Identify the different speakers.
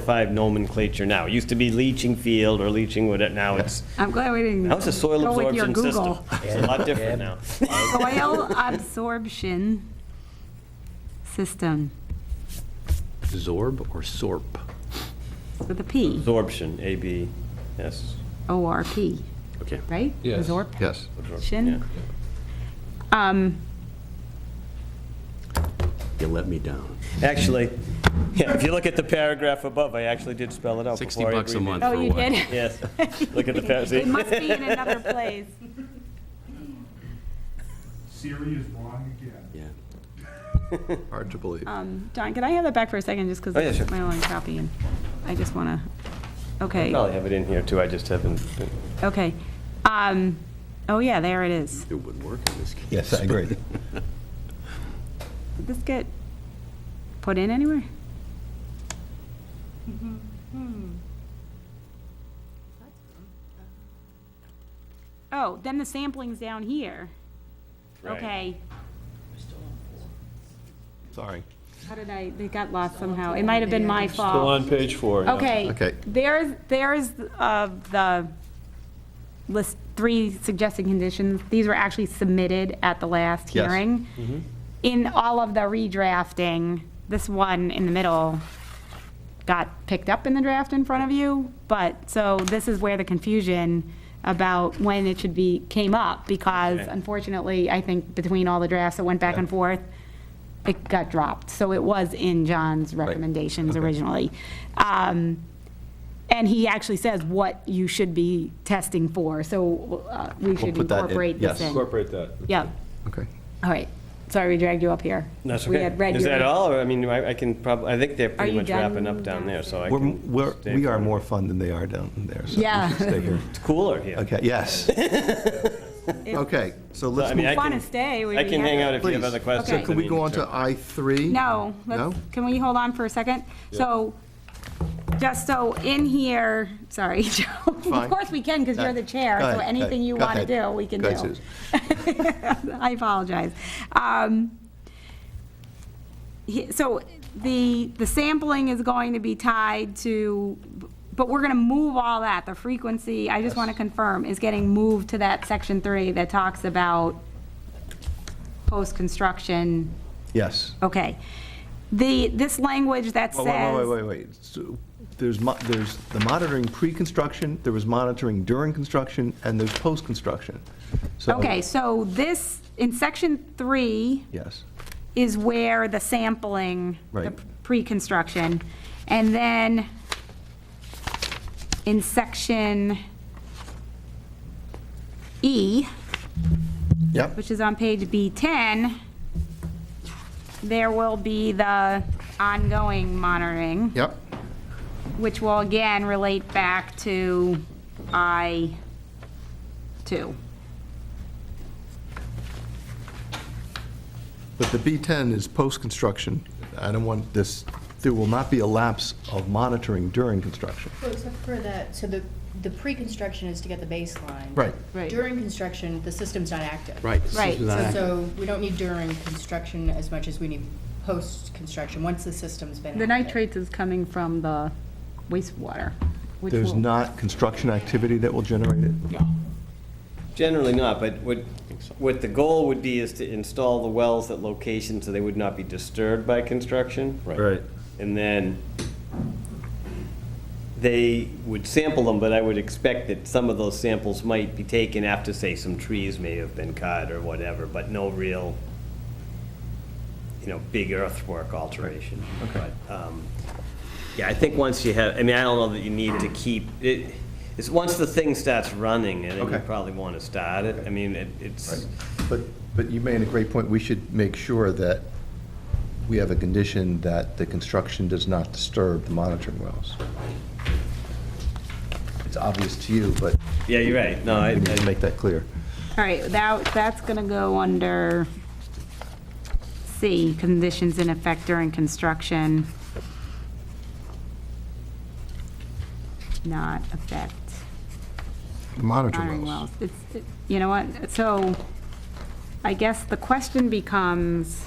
Speaker 1: certified nomenclature now. It used to be leaching field or leaching whatever, now it's,
Speaker 2: I'm glad we didn't.
Speaker 1: now it's a soil
Speaker 2: go with your
Speaker 1: absorption system.
Speaker 2: Google.
Speaker 1: It's a lot different now.
Speaker 2: Soil absorption system
Speaker 3: Zorb or SORP?
Speaker 2: with a P,
Speaker 1: Absorption, AB, yes.
Speaker 2: O R P,
Speaker 3: Okay.
Speaker 2: right?
Speaker 4: Yes.
Speaker 3: Yes.
Speaker 1: Yeah.
Speaker 2: Absorption. Um,
Speaker 3: You let me down.
Speaker 1: Actually, yeah, if you look at the paragraph above, I actually did spell it out
Speaker 3: 60
Speaker 1: before I
Speaker 3: bucks a
Speaker 1: agreed
Speaker 3: month
Speaker 2: oh,
Speaker 3: for
Speaker 2: you
Speaker 3: what?
Speaker 2: did?
Speaker 1: it. Yes, look at the
Speaker 2: It
Speaker 1: paragraph.
Speaker 2: must be in another place.
Speaker 5: Siri is wrong again.
Speaker 3: Yeah.
Speaker 4: Hard to believe.
Speaker 2: Um, Don, can I have that back for a second, just because
Speaker 1: Oh, yeah, sure.
Speaker 2: it's my only copy, and I just want to, okay.
Speaker 1: Probably have it in here too, I just haven't. been-
Speaker 2: Okay. Um, oh, yeah, there it is.
Speaker 3: It wouldn't work in this case.
Speaker 6: Yes, I agree.
Speaker 2: Did this get put in anywhere? Oh, then the sampling's down here.
Speaker 1: Right.
Speaker 2: Okay.
Speaker 4: Sorry.
Speaker 2: How did I, they got lost somehow. It might have been my fault.
Speaker 4: Still on page four. yeah.
Speaker 2: Okay,
Speaker 4: Okay.
Speaker 2: there's, there's uh, the list, three suggested conditions. These were actually submitted at the last
Speaker 4: Yes.
Speaker 2: hearing.
Speaker 4: Mm-hmm.
Speaker 2: In all of the redrafting, this one in the middle got picked up in the draft in front of you, but, so this is where the confusion about when it should be, came up, because
Speaker 1: Okay.
Speaker 2: unfortunately, I think between all the drafts that went back and forth, it got dropped. So it was in John's recommendations originally. Um, And he actually says what you should be testing for, so uh, we should
Speaker 4: put that in,
Speaker 2: incorporate this
Speaker 4: yes.
Speaker 2: in.
Speaker 4: Incorporate
Speaker 2: that. Yep,
Speaker 4: Okay.
Speaker 2: all right. Sorry we dragged you up here.
Speaker 1: That's
Speaker 2: We
Speaker 1: okay.
Speaker 2: had read
Speaker 1: Is
Speaker 2: your-
Speaker 1: that all, or, I mean, I I can prob, I think they're pretty
Speaker 2: you
Speaker 1: much wrapping up
Speaker 2: done
Speaker 1: down there, so I
Speaker 6: We're,
Speaker 1: can.
Speaker 6: we're-
Speaker 1: stay
Speaker 6: we
Speaker 1: for-
Speaker 6: are more fun than they are down there, so we
Speaker 2: Yeah.
Speaker 6: should stay here.
Speaker 1: It's cooler here.
Speaker 6: Okay, yes.
Speaker 4: Okay, so
Speaker 1: So, I
Speaker 4: let's
Speaker 1: mean,
Speaker 4: move,
Speaker 1: I
Speaker 2: Want to
Speaker 1: can-
Speaker 2: stay? we'd
Speaker 1: I
Speaker 2: be
Speaker 1: can
Speaker 2: happy.
Speaker 1: hang out if you have
Speaker 4: Please.
Speaker 1: other
Speaker 4: So
Speaker 1: questions.
Speaker 2: Okay.
Speaker 1: I
Speaker 4: can we
Speaker 1: mean,
Speaker 4: go on
Speaker 1: sure.
Speaker 4: to I3?
Speaker 2: No, let's,
Speaker 4: No?
Speaker 2: can we hold on for a second? So, just so in here, sorry, Joe.
Speaker 4: Fine. Uh,
Speaker 2: Of course we can, because you're the chair,
Speaker 4: Go
Speaker 2: so
Speaker 4: ahead,
Speaker 2: anything
Speaker 4: go
Speaker 2: you want to
Speaker 4: ahead.
Speaker 2: do, we can
Speaker 4: Go ahead,
Speaker 2: do.
Speaker 4: Susan.
Speaker 2: I apologize. Um, he- So the, the sampling is going to be tied to, but we're going to move all that, the frequency, I just want to confirm, is getting moved to that section three that talks about post-construction
Speaker 6: Yes.
Speaker 2: Okay. The, this language that
Speaker 6: Oh, Wait, wait,
Speaker 2: says,
Speaker 6: wait, wait, wait. So There's, mo- there's the monitoring pre-construction, there was monitoring during construction, and there's post-construction. So-
Speaker 2: okay, so this, in section three
Speaker 6: Yes,
Speaker 2: is where the sampling, the
Speaker 6: Right.
Speaker 2: pre-construction, and then in section E,
Speaker 6: yep,
Speaker 2: which is on page B10, there will be the ongoing monitoring.
Speaker 4: Yep,
Speaker 2: which will again relate back to I-2.
Speaker 4: but
Speaker 6: the B10 is post-construction. I don't want this, there will not be a lapse of monitoring during construction.
Speaker 7: Well, Except for that, so the, the pre-construction is to get the baseline.
Speaker 6: Right.
Speaker 2: Right.
Speaker 7: During construction, the system's not active.
Speaker 3: Right. this
Speaker 2: Right,
Speaker 3: is not
Speaker 7: So-
Speaker 3: act-
Speaker 7: So we don't need during construction as much as we need post-construction, once the system's been active.
Speaker 2: The nitrates is coming from the wastewater, which
Speaker 6: There's
Speaker 2: will,
Speaker 6: not construction activity that will generate it?
Speaker 1: Generally not, but what, what the goal would be is to install the wells at locations so they would not be disturbed by construction.
Speaker 6: Right.
Speaker 1: And then they would sample them, but I would expect that some of those samples might be taken after, say, some trees may have been cut or whatever, but no real, you know, big earthwork alteration. Okay. Yeah, I think once you have, I mean, I don't know that you need to keep, it, it's, once the thing starts running, and you
Speaker 6: Okay.
Speaker 1: probably want to start it, I mean, it- it's,
Speaker 4: But, but you made a great point. We should make sure that
Speaker 6: We have a condition that the construction does not disturb the monitoring wells. It's obvious to you, but
Speaker 1: yeah, you're right, no, I,
Speaker 6: we need to
Speaker 1: I-
Speaker 6: make that clear.
Speaker 2: all right, that, that's going to go under C, conditions in effect during construction. Not affect
Speaker 4: monitoring
Speaker 2: monitoring
Speaker 4: wells.
Speaker 2: wells. It's, it- you know what, so I guess the question becomes,